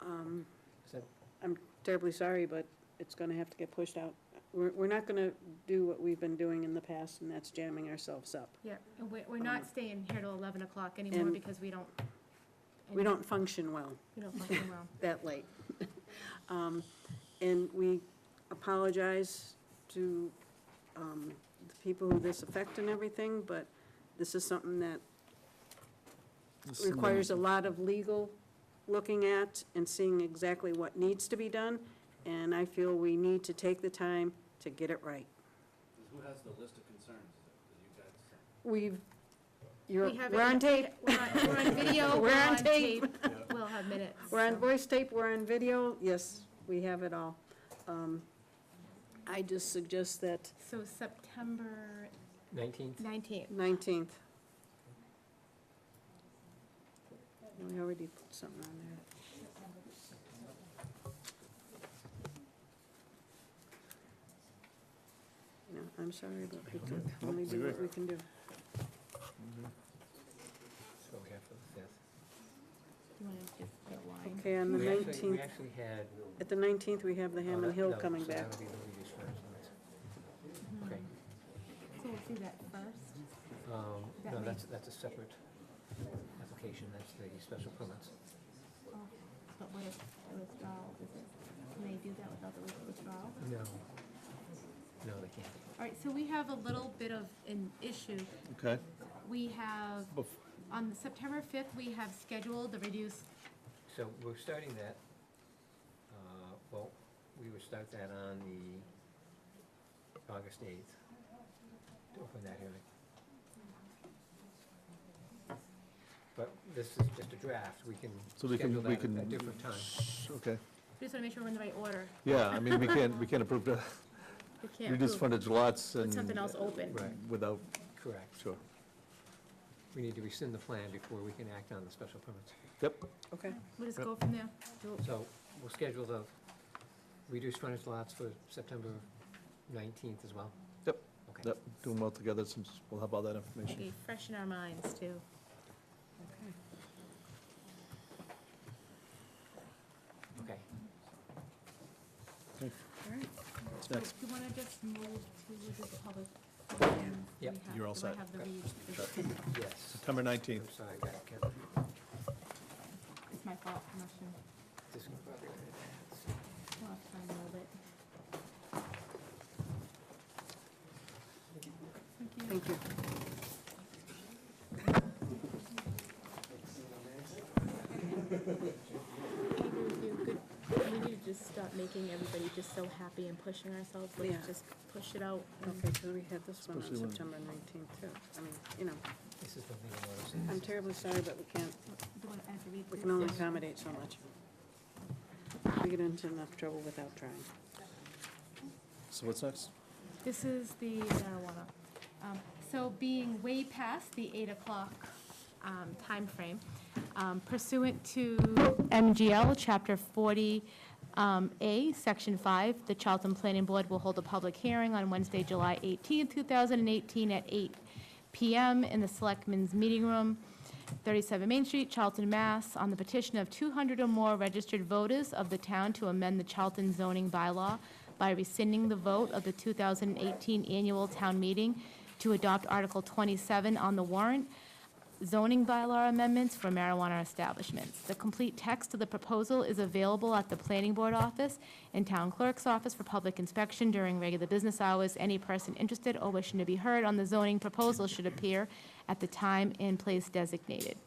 Um, I'm terribly sorry, but it's gonna have to get pushed out. We're, we're not gonna do what we've been doing in the past, and that's jamming ourselves up. Yeah, and we, we're not staying here till eleven o'clock anymore And- because we don't. We don't function well We don't function well. that late. Um, And we apologize to um, the people who this affect and everything, but this is something that This is requires a something- lot of legal looking at and seeing exactly what needs to be done, and I feel we need to take the time to get it right. Who has the list of concerns that you guys sent? We've, you're, We have we're it- on tape, We're on, we're on video, we're on tape, we'll have minutes. we're on so. voice tape, we're on video, yes, we have it all. Um, I just suggest that So September Nineteenth? nineteenth, nineteenth. We already put something on there. No, I'm sorry, but we can only do what we can do. So we have for the fifth. you wanna just outline? Okay, on the We actually- We nineteenth, actually had. at the nineteenth, we have the oh, Hammond that- Hill no, coming so back. that'll be the previous one, so that's- Mm. Okay, Mm-hmm. So we'll do that first. um, That no, may- that's, that's a separate application, that's the special permits. Oh, But what if the withdrawal, is it, can they do that without the withdrawal? No. No, they can't. All right, so we have a little bit of an issue. Okay. We have, Bef- on September fifth, we have scheduled the reduced, So we're starting that, uh, well, we would start that on the August eighth, to open that hearing. But this is just a draft, we can So we schedule can, we that can. at a different time. Okay, we just wanna make sure we're in the right order. yeah, I mean, we can't, we can't approve the We can't reduced approve, frontage lots put and. something else open. Right. Without, Correct. sure, We need to rescind the plan before we can act on the special permits. yep, Okay, We'll just Yep. go from there. So we'll schedule the reduced frontage lots for September nineteenth as well? Yep. Okay. yep, do them all together since we'll have all that information. Be fresh in our minds too. okay. Okay. All right. What's So next? Do you wanna just move to the public? Yep. We have- You're all do I set. have the Okay. read? Yes. September I'm 19th. sorry, I got it, Kevin. It's my fault, I'm not sure. This- We'll have to find a little bit. Thank you. Thank you. I agree with you. Good. We need to just stop making everybody just so happy and pushing ourselves. Yeah. Let's just push it out. and- Okay, so we had this one on Especially when- September nineteenth, too. I mean, you know, This is the legal notice. I'm terribly sorry, but we can't, Do you want- I have to read we this? can only Yes. accommodate so much. We get into enough trouble without trying. So what's next? This is the marijuana. Um, So being way past the 8 o'clock um, timeframe, um, pursuant to MGL Chapter 40A, Section 5, the Charlton Planning Board will hold a public hearing on Wednesday, July 18, 2018, at 8 PM in the Selectmen's Meeting Room, 37 Main Street, Charlton, Mass., on the petition of 200 or more registered voters of the town to amend the Charlton zoning bylaw by rescinding the vote of the 2018 annual town meeting to adopt Article 27 on the warrant, zoning bylaw amendments for marijuana establishments. The complete text of the proposal is available at the planning board office and town clerk's office for public inspection during regular business hours. Any person interested or wishing to be heard on the zoning proposal should appear at the time and place designated.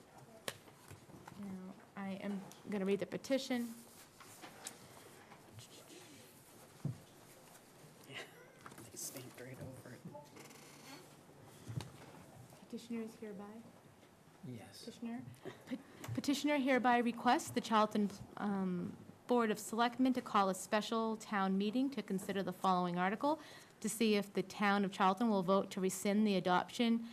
Now, I am going to read the petition. They stamped right over it. Petitioner is hereby. Yes. Petitioner. Pe- Petitioner hereby requests the Charlton um, Board of Selectmen to call a special town meeting to consider the following article, to see if the town of Charlton will vote to rescind the adoption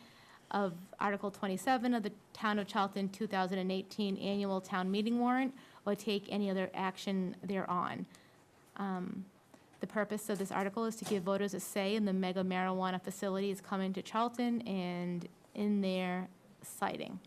of Article 27 of the Town of Charlton 2018 Annual Town Meeting Warrant, or take any other action thereon. Um, The purpose of this article is to give voters a say in the mega marijuana facilities coming to Charlton and in their siting.